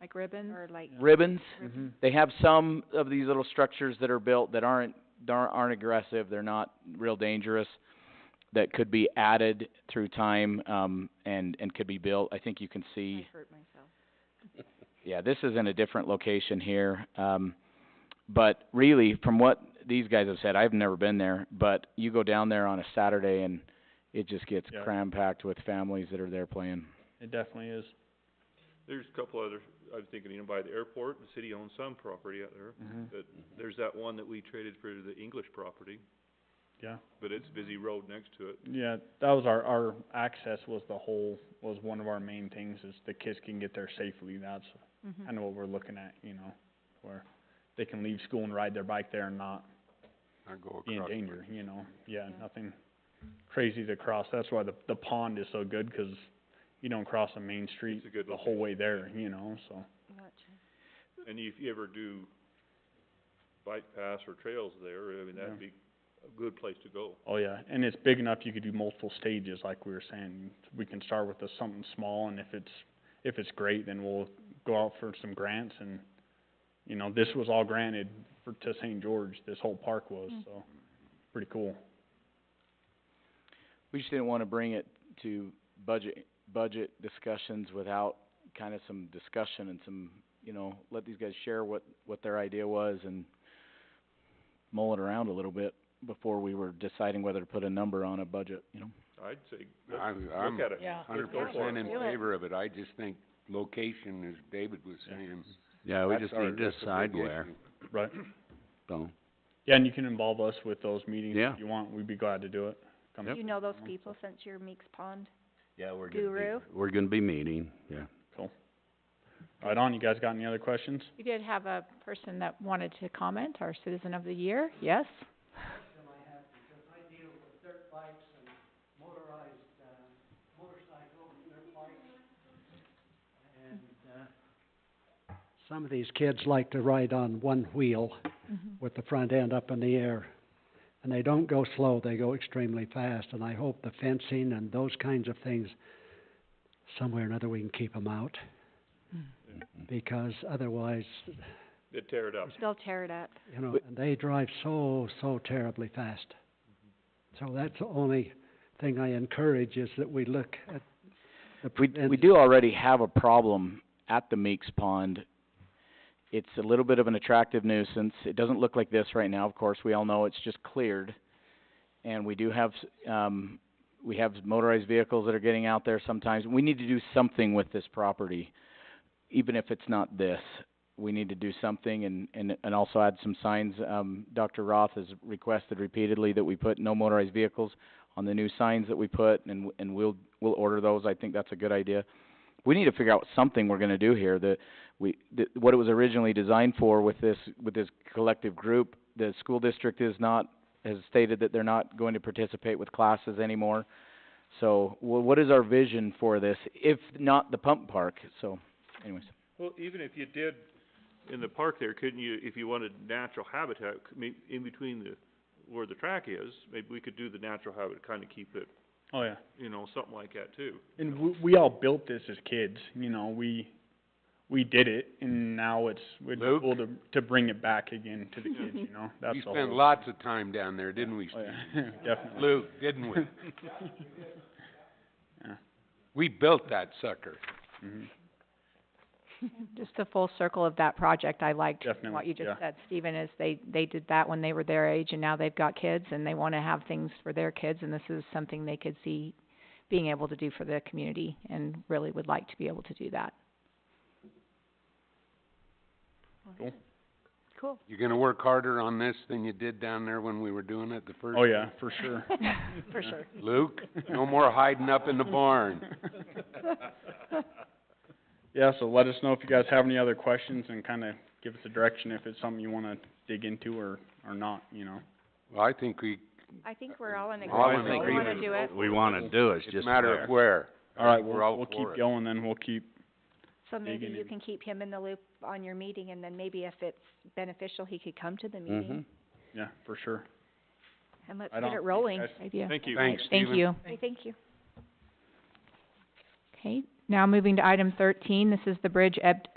like Mm-hmm. ribbons or like? ribbons. ribbons? They have some of these little structures that are built that aren't, that aren't aren't aggressive, they're not real dangerous, that could be added through time, um, and, and could be built. I think you can see, I hurt myself. yeah, this is in a different location here. Um, but really, from what these guys have said, I've never been there, but you go down there on a Saturday and it just gets Yeah. cram-packed with families that are there playing. It definitely is. There's a couple other, I'm thinking, you know, by the airport, the city owns some property out there. But there's that one that we traded for the English property, Yeah, but it's busy road next to it. yeah, that was our, our access was the whole, was one of our main things, is the kids can get there safely, that's Mm-hmm. Mhm. kind of what we're looking at, you know, where they can leave school and ride their bike there and not be in danger, you know, yeah, Yeah. nothing crazy to cross, that's why the, the pond is so good, 'cause you don't cross a main street It's a good the whole way there, you know, so. Gotcha. And if you ever do bike paths or trails there, I mean, that'd be a good place to go. Oh, yeah, and it's big enough, you could do multiple stages, like we were saying, we can start with a, something small, and if it's, if it's great, then we'll go out for some grants, and, you know, this was all granted for, to St. George, this whole park was, Mm. so, pretty cool. We just didn't wanna bring it to budget, budget discussions without kind of some discussion and some, you know, let these guys share what, what their idea was and mull it around a little bit before we were deciding whether to put a number on a budget, you know? I'd say, let's I'm, I'm look at it. Yeah. hundred Let's go for percent in it. Do it. favor of it, I just think location, as David was Yeah. saying, Yeah, we that's just our, need to that's a decide big where, issue. Right, so, yeah, and you can involve us with those meetings Yeah. if you want, we'd be glad to do it. Come- Do you know those people since you're Meeks Pond? yeah, we're gonna be- Guru? We're gonna be meeting, yeah. Right on, you guys got any other questions? You did have a person that wanted to comment, our citizen of the year, yes? Some of these kids like to ride on one wheel Mm-hmm. with the front end up in the air. And they don't go slow, they go extremely fast, and I hope the fencing and those kinds of things, somewhere or another, we can keep them out. Mm-hmm. Because otherwise, They'd tear it up. They'll tear it up. you know, But- and they drive so, so terribly fast. So that's the only thing I encourage is that we look at the We, prevent- we do already have a problem at the Meeks Pond. It's a little bit of an attractive nuisance. It doesn't look like this right now, of course. We all know it's just cleared. And we do have, s- um, we have motorized vehicles that are getting out there sometimes. We need to do something with this property, even if it's not this. We need to do something and, and, and also add some signs. Um, Dr. Roth has requested repeatedly that we put no motorized vehicles on the new signs that we put, and, w- and we'll, we'll order those, I think that's a good idea. We need to figure out something we're gonna do here, that we, that, what it was originally designed for with this, with this collective group, the school district is not, has stated that they're not going to participate with classes anymore. So, wh- what is our vision for this, if not the pump park, so, anyways. Well, even if you did in the park there, couldn't you, if you wanted natural habitat, c- may- in between the, where the track is, maybe we could do the natural habitat, kinda keep it, Oh, yeah. you know, something like that too. And we, we all built this as kids, you know, we, we did it, and now it's, it's Luke? cool to, to bring it back again to the kids, you know, that's We the spent whole- lots of time down there, didn't we, Oh, Steve? yeah, definitely. Luke, didn't we? Yeah. We built that sucker. Mhm. Just the full circle of that project, I liked Definitely, what you just yeah. said, Stephen, is they, they did that when they were their age, and now they've got kids, and they wanna have things for their kids, and this is something they could see being able to do for the community, and really would like to be able to do that. Cool. You're gonna work harder on this than you did down there when we were doing it the first Oh, yeah, for sure. For sure. Luke, no more hiding up in the barn. Yeah, so let us know if you guys have any other questions and kinda give us a direction if it's something you wanna dig into or, or not, you know. Well, I think we, I think we're all in All in agreement. We Oh, wanna agreement. do it. We wanna do, it's it's a just matter where. of where. All right, We're we'll, all we'll for keep it. going then, we'll keep, So maybe digging you in. can keep him in the loop on your meeting and then maybe if it's beneficial, he could come to the Mm-hmm. meeting yeah, for sure. and let's I get don't it think rolling. that's- Idea. Thank you. Thanks, Thank Stephen. you. Hey, Thank you. Okay, now moving to item thirteen, this is the bridge ed-